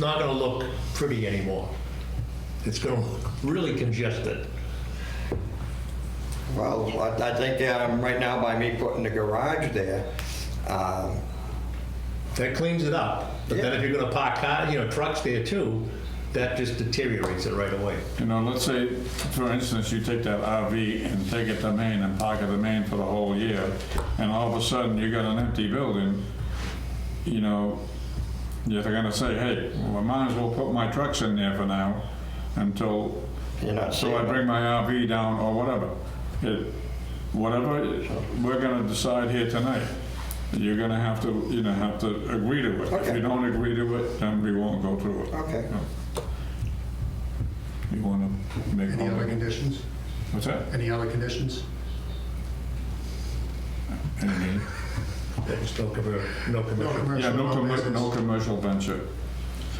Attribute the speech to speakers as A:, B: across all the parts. A: not going to look pretty anymore. It's going to look really congested.
B: Well, I I think um, right now by me putting the garage there, um,
A: That cleans it up. But then if you're going to park car, you know, trucks there too, that just deteriorates it right away.
C: You know, let's say, for instance, you take that RV and take it to Maine and park it in Maine for the whole year, and all of a sudden you got an empty building, you know, you're gonna say, hey, well, I might as well put my trucks in there for now until,
B: you're not
C: so I
B: seeing
C: bring my RV down or whatever. It, whatever we're gonna decide here tonight, you're gonna have to, you know, have to agree to it. If
B: Okay.
C: you don't agree to it, then we won't go through it.
B: Okay.
C: You wanna make
D: Any other
C: all the...
D: conditions?
C: What's that?
D: Any other conditions?
A: There's no commer- no
D: No
A: commercial
D: commercial,
C: Yeah, no commercial, no
D: business.
C: commercial venture.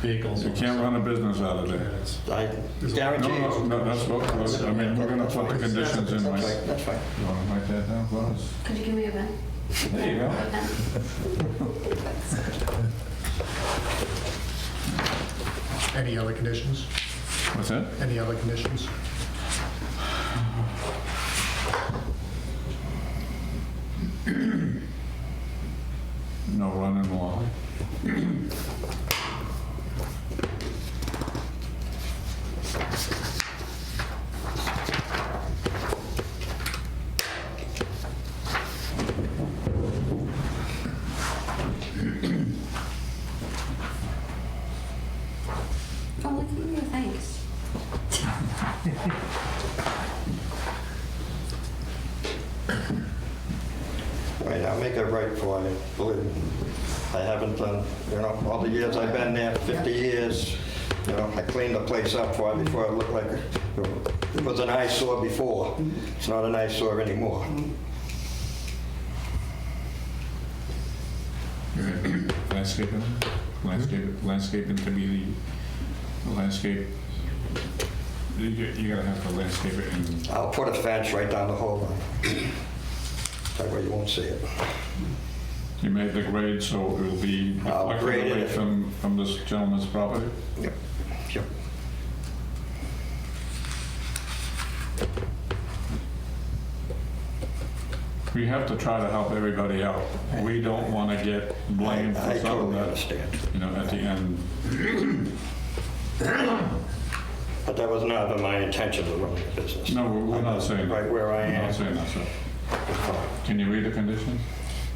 A: vehicles.
C: You can't run a business out of there.
B: I
C: No,
B: guarantee
C: no,
B: you.
C: no, that's what, what- I mean, we're gonna put the conditions in,
B: That's
C: like,
B: fine, that's fine.
C: you wanna write that down, Flores?
E: Could you give me a pen?
C: There you go.
E: A pen?
D: Any other conditions?
C: What's that?
D: Any other conditions?
C: No running water.
E: Oh, look at you, thanks.
B: All right, I'll make it right for you, believe me. I haven't done, you know, all the years I've been there, 50 years, you know, I cleaned the place up for it before it looked like, a- it was an eyesore before. It's not an eyesore anymore.
C: Landscaping, landscape, landscaping to be the landscape. You, you gotta have to landscape it and
B: I'll put a fence right down the whole line. That way you won't see it.
C: you made the grade, so it'll be
B: I'll grade
C: reflected away
B: it.
C: from, from this gentleman's property.
B: Yep. Yep.
C: We have to try to help everybody out. We don't want to get blamed
B: I
C: for something
B: totally
C: that,
B: understand.
C: you know, at the end.
B: But that was not my intention to run the business.
C: No, we're- we're not saying that.
B: Right where I
C: We're not
B: am.
C: saying that, so. Can you read the conditions?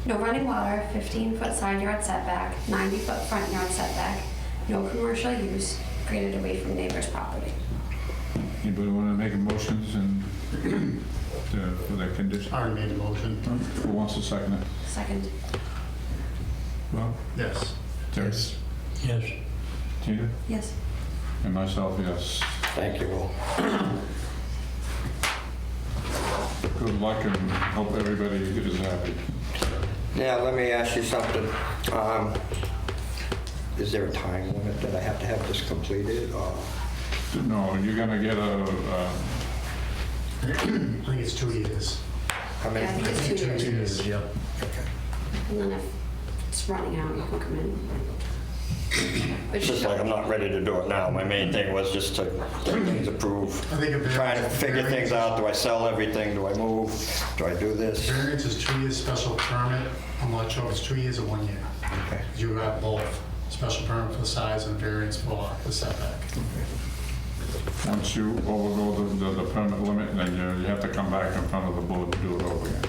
E: No running water, 15-foot side yard setback, 90-foot front yard setback, no commercial use created away from neighbor's property.
C: Anybody want to make motions and uh, for that condition?
D: Aaron made a motion.
C: Who wants to second it?
E: Second,
C: Well,
D: Yes.
C: Terry,
A: Yes.
C: Tina,
E: yes.
C: and myself, yes.
B: Thank you all.
C: Good luck and hope everybody is happy.
B: Now, let me ask you something. Um, Is there a time limit that I have to have this completed or?
C: No, you're going to get a, uh,
D: I think it's two years.
B: how
E: Yeah,
B: many?
E: I think it's two
D: Two
E: years.
D: years.
A: Yeah.
E: And then if it's running out, you can come in.
B: It's just like I'm not ready to do it now. My main thing was just to get things approved.
D: I think a variance.
B: Trying to figure things out. Do I sell everything? Do I move? Do I do this?
D: Variance is two years, special permit, I'm not sure if it's two years or one year.
B: Okay.
D: You got both, special permit for the size and variance for the setback.
C: Once you overgo the- the, the permit limit, then you, you have to come back in front of the board to do it over again.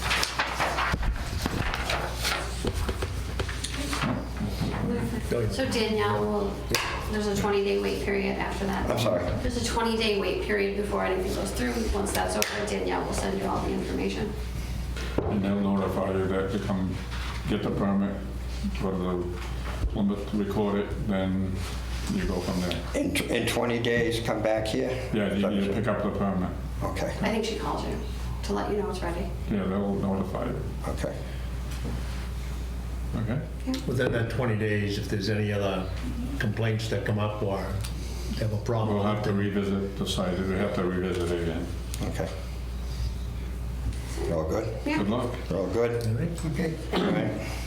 E: So Danielle, will- there's a 20-day wait period after that.
B: I'm sorry.
E: There's a 20-day wait period before anything goes through. Once that's over, Danielle will send you all the information.
C: And they'll notify you that to come get the permit, for the limit, record it, then you go from there.
B: In, tw- in 20 days, come back here?
C: Yeah, you, you pick up the permit.
B: Okay,
E: I think she called you to let you know it's ready.
C: Yeah, they'll notify you,
B: okay.
C: okay?
A: Within that 20 days, if there's any other complaints that come up or have a problem.
C: We'll have to revisit the site, we have to revisit it again.
B: Okay.
A: all good?
F: Yeah.
G: Good luck.
A: All good?
B: All right.
A: All right.